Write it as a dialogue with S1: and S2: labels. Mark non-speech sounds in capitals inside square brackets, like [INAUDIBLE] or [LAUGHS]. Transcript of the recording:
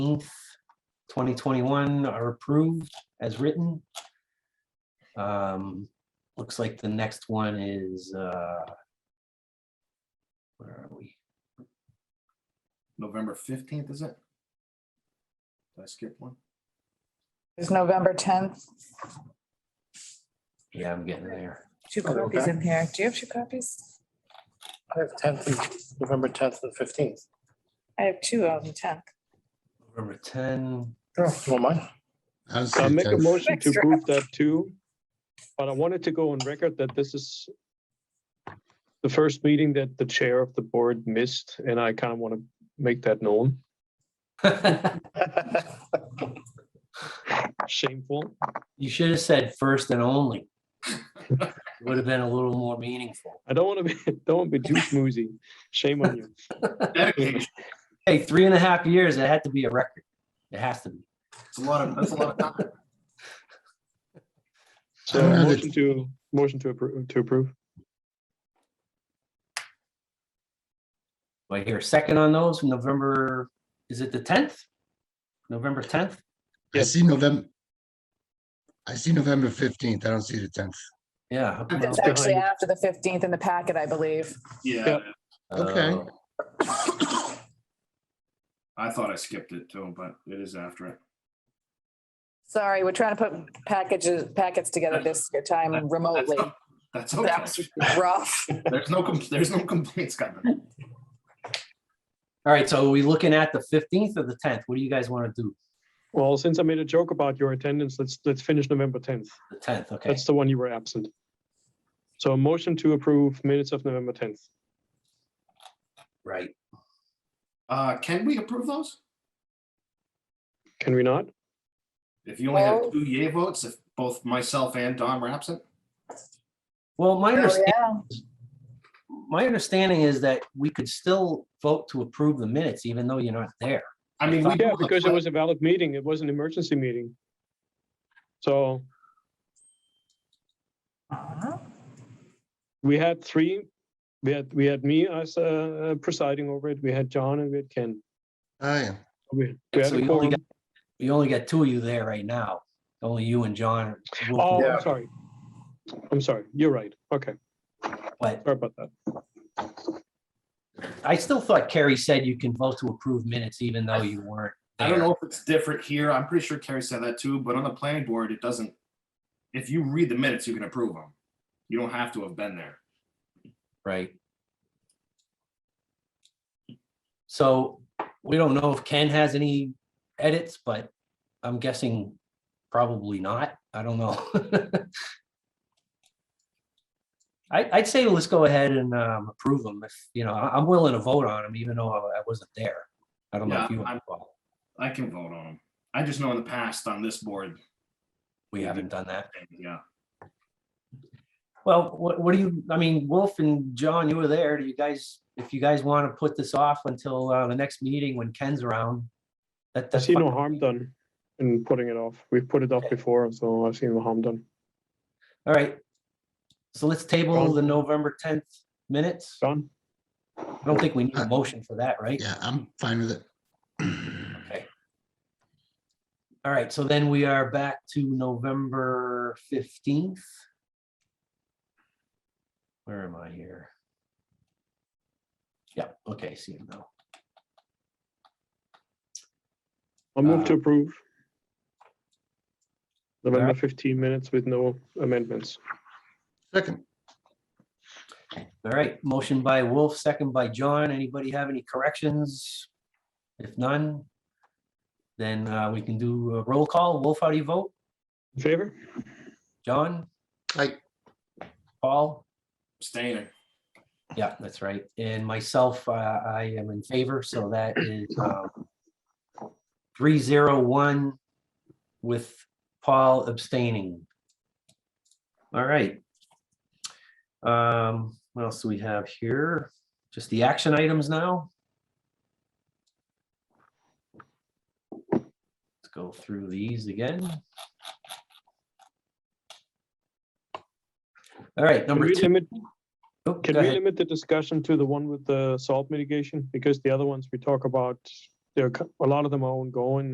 S1: 2021 are approved as written. Um, Looks like the next one is, uh, where are we?
S2: November fifteenth, is it? Did I skip one?
S3: It's November tenth.
S1: Yeah, I'm getting there.
S3: Two
S4: Oh,
S3: copies
S4: okay.
S3: in here. Do you have two copies?
S4: I have tenth, November tenth and fifteenth.
S3: I have two of the tenth.
S1: November 10,
S4: Sure. Don't mind.
S5: How's
S6: I'll
S5: the
S6: make a
S5: tenth?
S6: motion to
S3: Extra.
S6: approve that too, but I wanted to go on record that this is the first meeting that the chair of the board missed, and I kind of want to make that known. Shameful.
S1: [LAUGHS] you should have said first and only. Would have been a little more meaningful.
S6: I don't want to be, [LAUGHS] don't want to be too smoozy. Shame on you.
S2: Dedication.
S1: Hey, three and a half years, it had to be a record. It has to be.
S2: It's a lot of, that's a lot of time.
S6: So
S5: don't have it.
S6: motion to, motion to approve, to approve.
S1: Do I hear a second on those? November, is it the 10th? November 10th?
S5: I see November. I see November fifteenth. I don't see the tenth.
S1: Yeah. how come
S3: It's
S1: not?
S3: actually
S6: behind
S3: after the fifteenth in the packet, I believe.
S2: Yeah,
S6: Yeah.
S5: Okay.
S1: Uh,
S2: I thought I skipped it too, but it is after it.
S3: Sorry, we're trying to put packages, packets together this year time remotely.
S2: That's okay.
S3: That was rough.
S2: There's no, com- there's no complaints coming.
S1: All right, so are we looking at the fifteenth or the tenth? What do you guys want to do?
S6: Well, since I made a joke about your attendance, let's, let's finish November tenth.
S1: The tenth, okay.
S6: That's the one you were absent. So a motion to approve minutes of November tenth.
S1: Right.
S2: Uh, can we approve those?
S6: Can we not?
S2: If you only have
S3: Oh.
S2: two yay votes, if both myself and Don were absent?
S1: Well, my
S3: Oh,
S1: understanding,
S3: yeah.
S1: my understanding is that we could still vote to approve the minutes even though you're not there.
S2: I mean, we.
S6: Yeah,
S2: do-
S6: because it was a valid meeting. It was an emergency meeting. So
S3: Uh-huh.
S6: we had three, we had, we had me as uh, presiding over it, we had John and we had Ken.
S5: Oh, yeah.
S6: We we had
S1: So
S6: a
S1: you only
S6: quorum.
S1: We only got two of you there right now, only you and John. will-
S6: Oh,
S2: Yeah.
S6: I'm sorry. I'm sorry. You're right. Okay,
S1: But
S6: sorry about that.
S1: I still thought Carrie said you can vote to approve minutes even though you weren't.
S2: I don't
S1: there.
S2: know if it's different here. I'm pretty sure Carrie said that too, but on the planning board, it doesn't. If you read the minutes, you can approve them. You don't have to have been there.
S1: Right. So we don't know if Ken has any edits, but I'm guessing probably not. I don't know. [LAUGHS] I, I'd say let's go ahead and um, approve them if, you know, I- I'm willing to vote on them even though I I wasn't there. I don't know if
S2: Yeah,
S1: you,
S2: I'm- I can vote on them. I just know in the past on this board, uh,
S1: we haven't done that.
S2: yeah.
S1: Well, what, what do you, I mean, Wolf and John, you were there. Do you guys, if you guys want to put this off until uh, the next meeting when Ken's around? That,
S6: I
S1: that's.
S6: see
S1: fine.
S6: no harm done in putting it off. We've put it off
S1: Okay.
S6: before, so I've seen no harm done.
S1: All right. So let's table
S6: John?
S1: the November tenth minutes. I
S6: John?
S1: don't think we need a motion for that, right?
S5: Yeah, I'm fine with it. [CLEARS THROAT]
S1: Okay. All right, so then we are back to November fifteenth. Where am I here? Yeah, okay, see you now.
S6: I'll move to
S1: Uh,
S6: approve. November
S1: Alright.
S6: fifteen minutes with no amendments.
S5: Second,
S1: All right, motion by Wolf, second by John. Anybody have any corrections? If none, then uh, we can do a roll call. Wolf, how do you vote?
S6: In Favor?
S1: John,
S5: I,
S1: Paul?
S2: Abstaining.
S1: Yeah, that's right. And myself, uh, I am in favor, so that is um, three zero one with Paul abstaining. All right. Um, What else do we have here? Just the action items now? Let's go through these again. All right,
S6: Can
S1: number
S6: we
S1: two.
S6: limit
S1: Oh,
S6: Can
S1: go
S6: we
S1: ahead.
S6: limit the discussion to the one with the salt mitigation? Because the other ones we talk about they're, co- a lot of them are ongoing